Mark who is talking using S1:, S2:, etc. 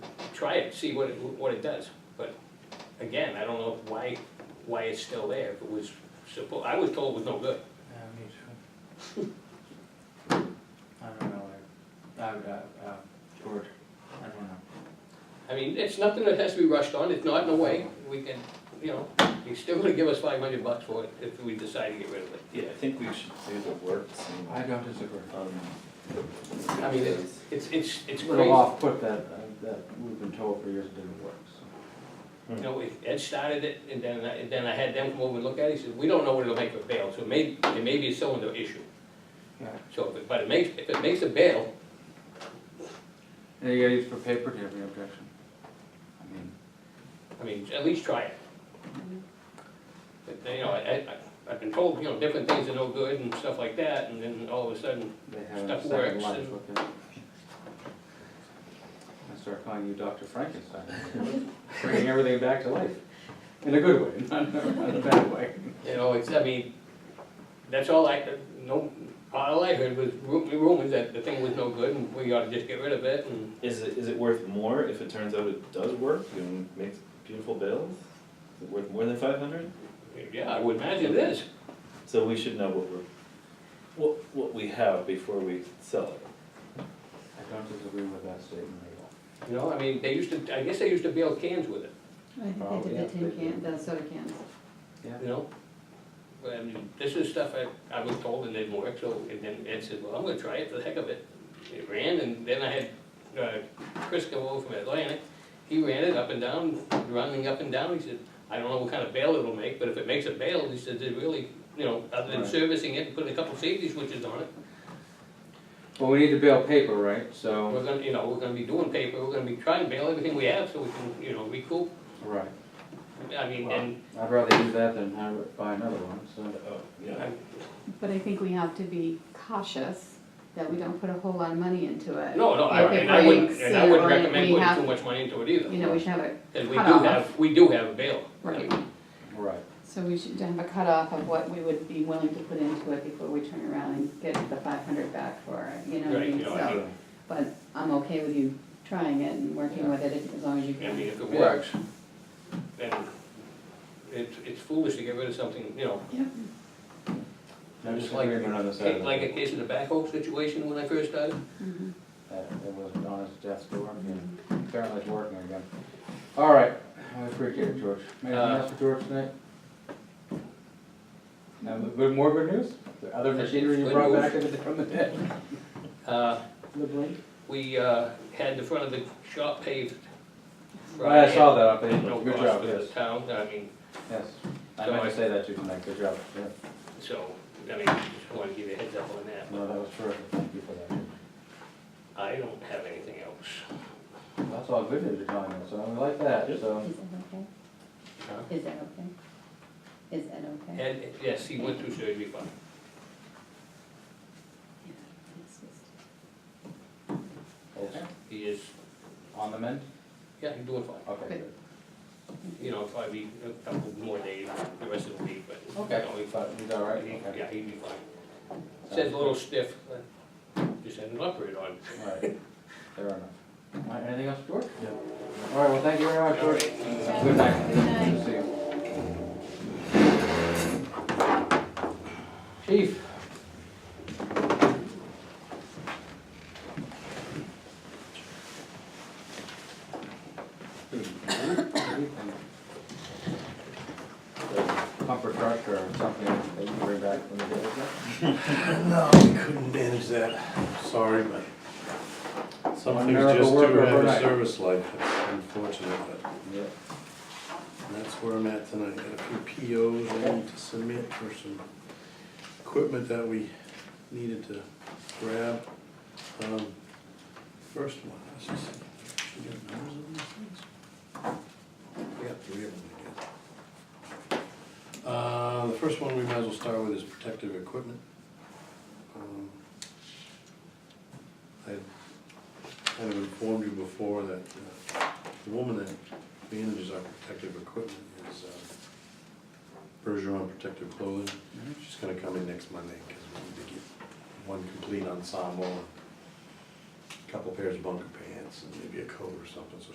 S1: try it, see what it, what it does. But again, I don't know why, why it's still there, if it was suppo, I was told it was no good.
S2: Yeah, me too. I don't know, I, I, I, uh, George, I don't know.
S1: I mean, it's nothing that has to be rushed on, it's not in a way, we can, you know, you're still gonna give us five hundred bucks for it if we decide to get rid of it.
S3: Yeah, I think we should do the work. and,
S2: I don't disagree.
S3: um,
S1: I mean, it's, it's, it's it's
S2: It's a
S1: crazy.
S2: little off put that, uh, that we've been told for years it didn't work, so.
S1: You know, we- Ed started it, and then, I- and then I had them come over and look at it, he said, we don't know what it'll make for bail, so maybe, it may be a cylinder issue.
S2: Yeah.
S1: So, but- but it makes, if it makes a bail,
S2: And you gotta use for paper, do you have any objection? I mean,
S1: I mean, at least try it. But, you know, I, I, I've been told, you know, different things are no good and stuff like that, and then all of a sudden,
S2: they have a
S1: Stuff
S2: second
S1: works
S2: life
S1: and-
S2: with it. I start calling you Dr. Frankenstein, bringing everything back to life, in a good way, not not in a bad way.
S1: you know, it's, I mean, that's all I, no, all I heard was ru- rumors that the thing was no good, and we ought to just get rid of it, and
S3: Is it, is it worth more if it turns out it does work and makes beautiful bills? Is it worth more than five hundred?
S1: Yeah, I would imagine it is.
S3: So we should know what we're, what, what we have before we sell it.
S2: I don't disagree with that statement at all.
S1: You know, I mean, they used to, I guess they used to bail cans with it,
S4: I think Oh, they did the tin can, the soda cans.
S1: you know? But I mean, this is stuff I, I was told and didn't work, so, and then Ed said, well, I'm gonna try it for the heck of it. It ran, and then I had, uh, Chris come over from Atlantic, he ran it up and down, running up and down, he said, I don't know what kind of bail it'll make, but if it makes a bail, he said, it really, you know, other than
S2: Right.
S1: servicing it, and putting a couple safety switches on it,
S2: Well, we need to bail paper, right, so.
S1: we're gonna, you know, we're gonna be doing paper, we're gonna be trying to bail everything we have, so we can, you know, recoup,
S2: Right.
S1: I mean,
S2: Well,
S1: and
S2: I'd rather do that than have it buy another one, so.
S3: Oh, yeah.
S1: I-
S4: But I think we have to be cautious that we don't put a whole lot of money into it.
S1: No, no, I,
S4: If it
S1: and I wouldn't,
S4: breaks,
S1: and I
S4: you
S1: wouldn't
S4: know,
S1: recommend
S4: we
S1: putting
S4: have-
S1: too much money into it either.
S4: You know, we should have a,
S1: Cause we do
S4: cut off.
S1: have, we do have a bail.
S4: right,
S2: Right.
S4: so we should have a cutoff of what we would be willing to put into it before we turn around and get the five hundred back for it, you know what I
S1: Right,
S4: mean?
S1: you know, I
S4: So, But I'm okay with you trying it and working with it as long as you
S1: I mean,
S4: can.
S1: if it works, then it's, it's foolish to get rid of something, you know.
S4: Yep.
S2: No
S1: Just like-
S2: disagreement on the side of
S1: Like a
S2: it.
S1: case of the backhoe situation when I first started,
S4: Mhm.
S2: That it wasn't on his desk door, and apparently it's working again. All right, I appreciate it, George. Anything
S1: Uh,
S2: else for George tonight? Now, but more good news? The other machinery you
S1: Good
S2: brought
S1: news.
S2: back into the, from the dead?
S1: uh,
S2: The blink?
S1: we, uh, had the front of the shop paved.
S2: I
S1: Friday
S2: saw that up there,
S1: At no
S2: good
S1: cost
S2: job,
S1: to the
S2: yes,
S1: town, I mean,
S2: yes. I
S1: So
S2: meant
S1: I-
S2: to say that to you tonight, good job, yeah.
S1: so, I mean, just wanna give you a heads up on that.
S2: No, that was terrific, thank you for that.
S1: I don't have anything else.
S2: That's all good news you're telling us, so I like that,
S3: Yep.
S2: so.
S4: Is that okay?
S1: Huh?
S4: Is that okay? Is that okay?
S1: And, yes, he went through surgery, but
S4: Yeah, it's just-
S2: It's
S1: he is,
S2: On the mend?
S1: yeah, he's doing fine.
S2: Okay,
S4: Good.
S2: good.
S1: you know, probably a couple more days, the rest of the week, but.
S2: Okay,
S1: No,
S2: we
S1: he'd
S2: thought, he's all right,
S1: be-
S2: okay.
S1: Yeah, he'd be fine. Says a little stiff, but just had an operated on.
S2: All right, fair enough. All right, anything else, George? Yeah. All right, well, thank you very much,
S1: All
S2: George.
S1: right.
S2: Have a Good night.
S4: Good night.
S2: Good to see you. Chief? Pumper truck or something that you bring back from the day, is it?
S5: No, we couldn't manage that, sorry, but some
S2: One
S5: things
S2: miracle
S5: just do
S2: worker
S5: have a
S2: overnight.
S5: service life, it's unfortunate, but
S2: Yeah.
S5: that's where I'm at tonight. Got a few POs I need to submit for some equipment that we needed to grab. Um, First one, let's just see, should we get numbers on these things? We got three of them, I guess. Uh, the first one we might as well start with is protective equipment. Um, I kind of informed you before that uh, the woman that manages our protective equipment is um, Bergeron Protective Clothing. She's gonna come in next Monday, because we need to get one complete ensemble, a couple pairs of bunker pants, and maybe a coat or something, so